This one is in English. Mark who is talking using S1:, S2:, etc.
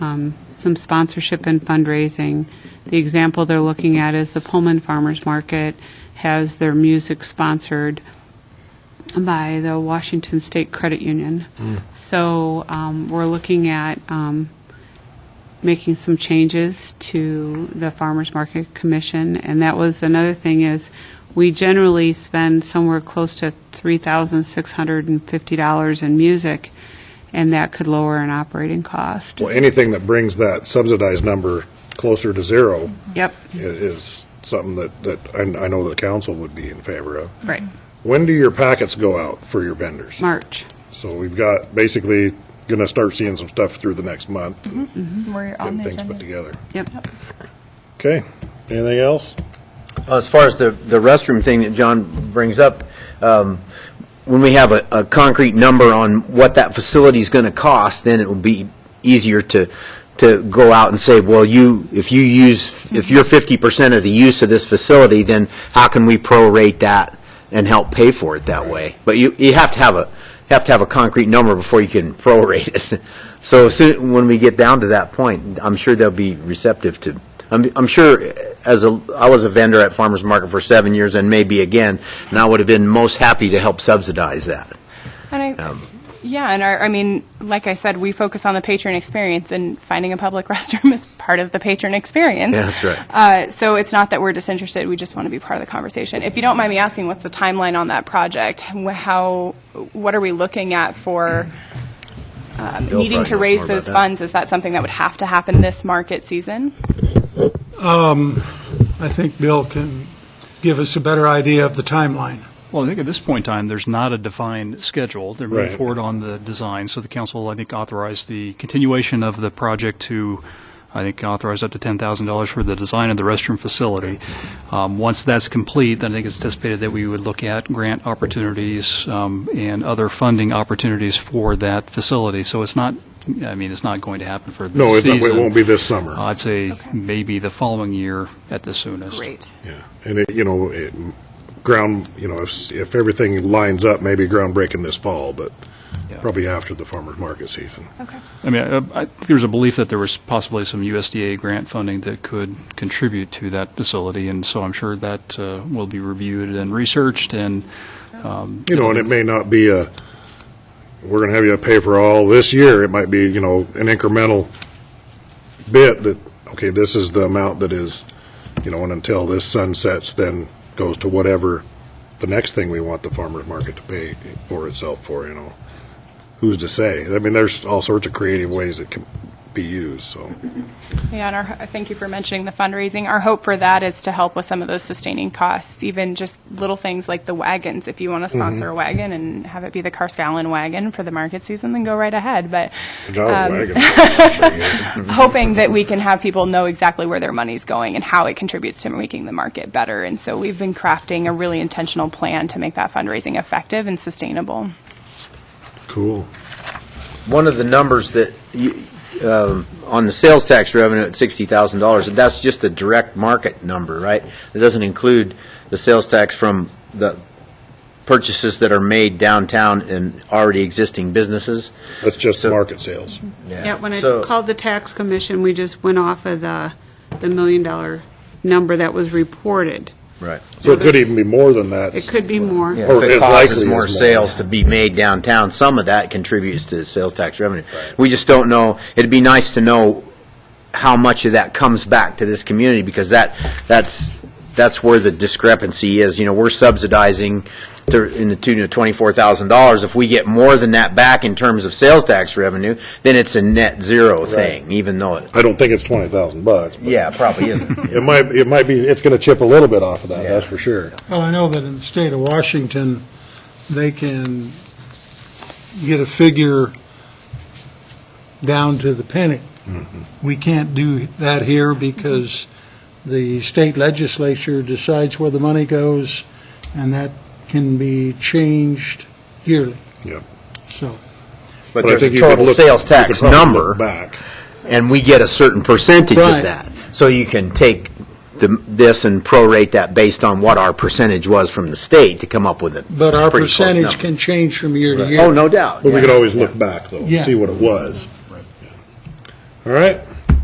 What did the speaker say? S1: um, some sponsorship and fundraising. The example they're looking at is the Pullman Farmers Market has their music sponsored by the Washington State Credit Union. So um, we're looking at um, making some changes to the Farmers Market Commission, and that was another thing is, we generally spend somewhere close to $3,650 in music, and that could lower an operating cost.
S2: Well, anything that brings that subsidized number closer to zero
S1: Yep,
S2: i- is something that, that I I know the council would be in favor of.
S1: right,
S2: When do your packets go out for your vendors?
S1: March.
S2: So we've got, basically, going to start seeing some stuff through the next month,
S3: We're Mm-hmm. on
S2: getting
S3: the
S2: things put together.
S3: agenda.
S1: Yep,
S2: Okay, anything else?
S4: As far as the, the restroom thing that John brings up, um, when we have a, a concrete number on what that facility's going to cost, then it will be easier to, to go out and say, well, you, if you use, if you're fifty percent of the use of this facility, then how can we prorate that and help pay for it that way? But you, you have to have a, have to have a concrete number before you can prorate it. So soon, when we get down to that point, I'm sure they'll be receptive to, I'm, I'm sure as a, I was a vendor at Farmers Market for seven years and maybe again, and I would have been most happy to help subsidize that.
S3: And I,
S4: Um,
S3: yeah, and our, I mean, like I said, we focus on the patron experience, and finding a public restroom is part of the patron experience.
S4: Yeah, that's right.
S3: Uh, so it's not that we're disinterested; we just want to be part of the conversation. If you don't mind me asking, what's the timeline on that project? Wh- How, what are we looking at for um,
S4: Bill
S3: needing
S4: probably
S3: to
S4: knows
S3: raise
S4: more about
S3: those
S4: that.
S3: funds? Is that something that would have to happen this market season?
S5: I think Bill can give us a better idea of the timeline.
S6: Well, I think at this point in time, there's not a defined schedule. They're moving
S2: Right.
S6: forward on the design, so the council, I think, authorized the continuation of the project to, I think, authorize up to $10,000 for the design of the restroom facility. Um, Once that's complete, then I think it's anticipated that we would look at grant opportunities um, and other funding opportunities for that facility. So it's not, I mean, it's not going to happen for
S2: No,
S6: this
S2: it's not-
S6: season.
S2: it won't be this summer.
S6: I'd say maybe the following year at the soonest.
S2: Yeah, and it, you know, it, ground, you know, if, if everything lines up, maybe groundbreaking this fall, but
S6: Yeah.
S2: probably after the farmer's market season.
S6: I mean, uh, I- I- there's a belief that there was possibly some USDA grant funding that could contribute to that facility, and so I'm sure that uh, will be reviewed and researched, and um,
S2: You know, and it may not be a, we're going to have you pay for all this year. It might be, you know, an incremental bit that, okay, this is the amount that is, you know, and until this sunsets, then goes to whatever the next thing we want the farmer's market to pay for itself for, you know. Who's to say? I mean, there's all sorts of creative ways it can be used, so.
S3: Yeah, and our, thank you for mentioning the fundraising. Our hope for that is to help with some of those sustaining costs, even just little things like the wagons. If you want to sponsor a wagon and have it be the Carscallon wagon for the market season, then go right ahead. But
S2: God, wagon.
S3: hoping that we can have people know exactly where their money's going and how it contributes to making the market better. And so we've been crafting a really intentional plan to make that fundraising effective and sustainable.
S2: Cool.
S4: One of the numbers that, you- um, on the sales tax revenue at $60,000, that's just the direct market number, right? It doesn't include the sales tax from the purchases that are made downtown in already existing businesses.
S2: That's just
S4: So-
S2: market sales.
S1: yeah, when I
S4: So-
S1: called the tax commission, we just went off of the, the million dollar number that was reported.
S4: Right.
S2: So it could even be more than that.
S1: It could be more.
S4: Yeah,
S2: Or
S4: If
S2: Oh, it
S4: it causes
S2: likely
S4: more
S2: is more.
S4: sales to be made downtown, some of that contributes to sales tax revenue. We just don't know, it'd be nice to know how much of that comes back to this community, because that, that's, that's where the discrepancy is. You know, we're subsidizing to, in the tune of twenty-four thousand dollars. If we get more than that back in terms of sales tax revenue, then it's a net zero thing, even though it,
S2: I don't think it's 20,000 bucks. but-
S4: yeah, it probably isn't.
S2: It might, it might be, it's going to chip a little bit off of that, that's for sure.
S5: Well, I know that in the state of Washington, they can get a figure down to the penny.
S4: Mm-hmm.
S5: We can't do that here because the state legislature decides where the money goes, and that can be changed yearly.
S2: Yep.
S5: So,
S4: But
S2: I
S4: there's
S2: think
S4: a
S2: you could
S4: total
S2: look-
S4: sales
S2: you could
S4: tax
S2: probably look
S4: number.
S2: Back.
S4: and we get a certain percentage of
S5: Right.
S4: that. So you can take the- this and prorate that based on what our percentage was from the state to come up with a
S5: but our
S4: pretty close
S5: percentage
S4: number.
S5: can change from year to year.
S4: Oh, no doubt.
S2: But we
S4: yeah.
S2: could always look back, though, and
S5: Yeah.
S2: see what it was. All right?